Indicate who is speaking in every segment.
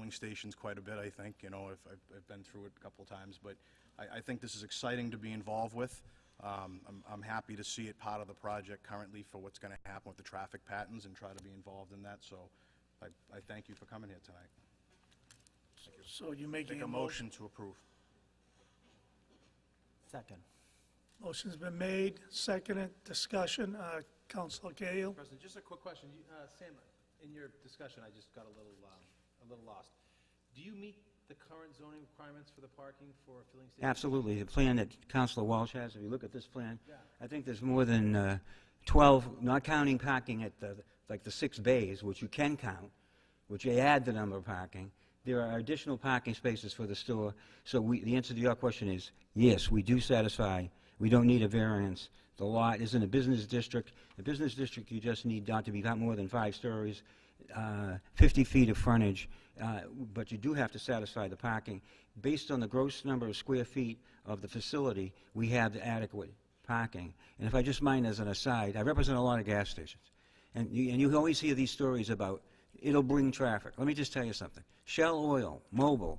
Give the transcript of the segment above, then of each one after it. Speaker 1: polling stations quite a bit, I think, you know, if, I've, I've been through it a couple of times, but I, I think this is exciting to be involved with. Um, I'm, I'm happy to see it part of the project currently for what's gonna happen with the traffic patterns and try to be involved in that, so I, I thank you for coming here tonight.
Speaker 2: So you're making
Speaker 1: Make
Speaker 2: a
Speaker 1: a
Speaker 2: motion.
Speaker 1: motion to approve.
Speaker 3: Second.
Speaker 2: Motion's been made, seconded, discussion, uh, Counselor Cahill.
Speaker 4: President, just a quick question. You- uh, Sam, in your discussion, I just got a little, um, a little lost. Do you meet the current zoning requirements for the parking for a filling station?
Speaker 5: Absolutely. The plan that Counselor Walsh has, if you look at this plan, I think there's more than uh, 12, not counting parking at the, like the six bays, which you can count, which they add the number of parking. There are additional parking spaces for the store. So we, the answer to your question is, yes, we do satisfy, we don't need a variance. The lot is in a business district. A business district, you just need not to be got more than five stories, uh, 50 feet of frontage, uh, but you do have to satisfy the parking. Based on the gross number of square feet of the facility, we have adequate parking. And if I just mind as an aside, I represent a lot of gas stations. And you, and you always hear these stories about it'll bring traffic. Let me just tell you something. Shell Oil, Mobil,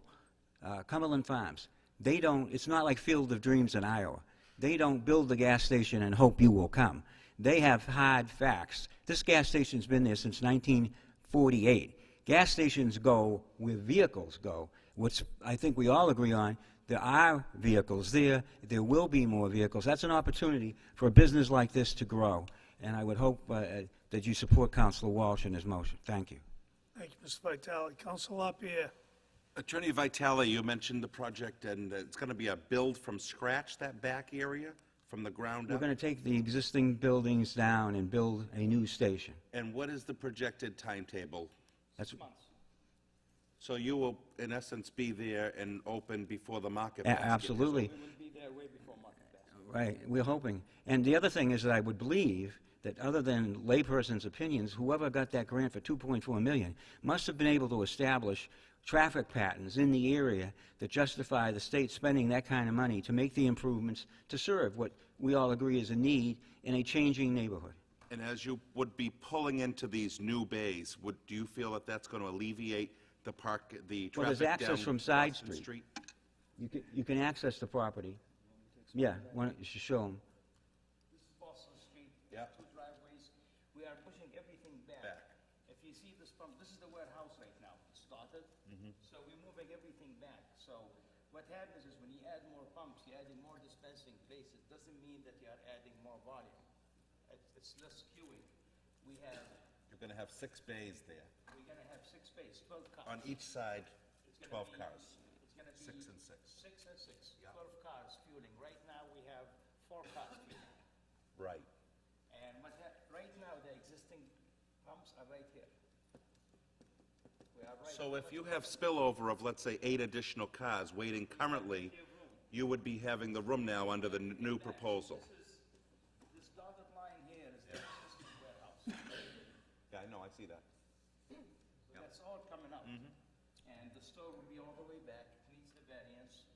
Speaker 5: uh, Cumberland Farms, they don't, it's not like Field of Dreams in Iowa. They don't build the gas station and hope you will come. They have hard facts. This gas station's been there since 1948. Gas stations go where vehicles go, which I think we all agree on. There are vehicles there. There will be more vehicles. That's an opportunity for a business like this to grow. And I would hope uh, that you support Counselor Walsh in his motion. Thank you.
Speaker 2: Thank you, Mr. Vitale. Counselor Lapierre.
Speaker 6: Attorney Vitale, you mentioned the project, and it's going to be a build from scratch, that back area, from the ground
Speaker 5: We're
Speaker 6: up?
Speaker 5: going to take the existing buildings down and build a new station.
Speaker 6: And what is the projected timetable?
Speaker 5: That's
Speaker 6: So you will, in essence, be there and open before the market
Speaker 5: a-
Speaker 6: basket? is
Speaker 5: absolutely. Right, we're hoping. And the other thing is that I would believe that other than layperson's opinions, whoever got that grant for 2.4 million must have been able to establish traffic patterns in the area that justify the state spending that kind of money to make the improvements to serve what we all agree is a need in a changing neighborhood.
Speaker 6: And as you would be pulling into these new bays, would, do you feel that that's going to alleviate the park, the
Speaker 5: Well, there's
Speaker 6: traffic down...
Speaker 5: access from side
Speaker 6: Boston
Speaker 5: street. You can, you can access the property. Yeah, why don't you show them?
Speaker 7: This is Boston Street.
Speaker 6: Yeah.
Speaker 7: Two driveways. We are pushing everything back. If you see this pump, this is the warehouse right now. It's started.
Speaker 6: Mm-hmm.
Speaker 7: So we're moving everything back. So what happens is when you add more pumps, you're adding more dispensing places. Doesn't mean that you are adding more volume. It's, it's less queuing. We have,
Speaker 6: You're going to have six bays there,
Speaker 7: we're gonna have six space, twelve
Speaker 6: on
Speaker 7: cars.
Speaker 6: each side,
Speaker 7: It's gonna
Speaker 6: 12
Speaker 7: be-
Speaker 6: cars.
Speaker 7: It's gonna be.
Speaker 6: Six and six.
Speaker 7: Six and six. Twelve cars fueling. Right now, we have four cars fueling.
Speaker 6: Right.
Speaker 7: And what hap, right now, the existing pumps are right here. We are right.
Speaker 6: So if you have spillover of, let's say, eight additional cars waiting currently, you would be having the room now under the n- new proposal?
Speaker 7: This dotted line here is the existing warehouse.
Speaker 6: Yeah, I know, I see that.
Speaker 7: So that's all coming out.
Speaker 4: Mm-hmm.
Speaker 7: And the store will be all the way back, it needs the variance,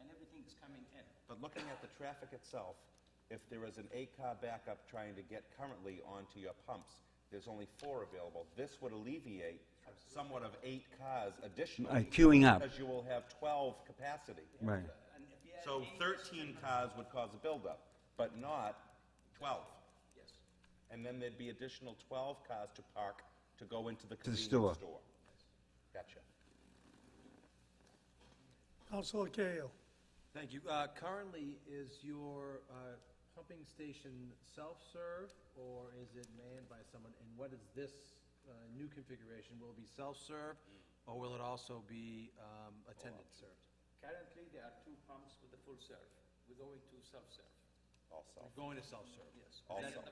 Speaker 7: and everything is coming in.
Speaker 6: But looking at the traffic itself, if there is an eight-car backup trying to get currently onto your pumps, there's only four available. This would alleviate somewhat of eight cars
Speaker 5: Uh,
Speaker 6: additionally.
Speaker 5: queuing up.
Speaker 6: Because you will have 12 capacity.
Speaker 5: Right.
Speaker 7: And if you add
Speaker 6: So
Speaker 7: eight,
Speaker 6: 13 cars would cause a buildup, but not 12.
Speaker 7: yes,
Speaker 6: And then there'd be additional 12 cars to park to go into the
Speaker 5: the
Speaker 6: convenience
Speaker 5: store.
Speaker 6: store. Gotcha.
Speaker 2: Counselor Cahill.
Speaker 4: Thank you. Uh, Currently, is your uh, pumping station self-serve, or is it manned by someone? And what is this uh, new configuration? Will it be self-serve, or will it also be um, attendant served?
Speaker 7: currently, there are two pumps with the full serve, we're going to self-serve,
Speaker 6: Also,
Speaker 4: You're Going to self-serve? Yes.
Speaker 6: also.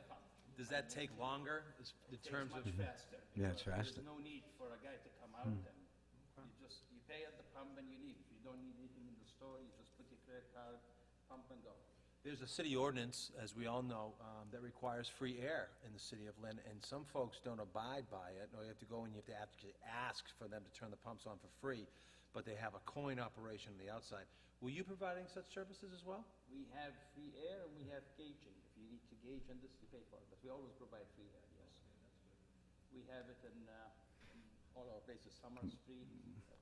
Speaker 4: Does that take longer, is- in terms of?
Speaker 7: much faster.
Speaker 5: Yeah, it's
Speaker 7: There's
Speaker 5: faster. Hmm.
Speaker 7: no need for a guy to come out then. You just, you pay at the pump and you leave. You don't need anything in the store, you just put your credit card, pump and go.
Speaker 4: There's a city ordinance, as we all know, um, that requires free air in the city of Lynn, and some folks don't abide by it, or you have to go and you have to actually ask for them to turn the pumps on for free, but they have a coin operation on the outside. Were you providing such services as well?
Speaker 7: We have free air and we have gauging. If you need to gauge on this, you pay for it, but we always provide free air, yes. We have it in, uh, in all our places, Summer Street, uh,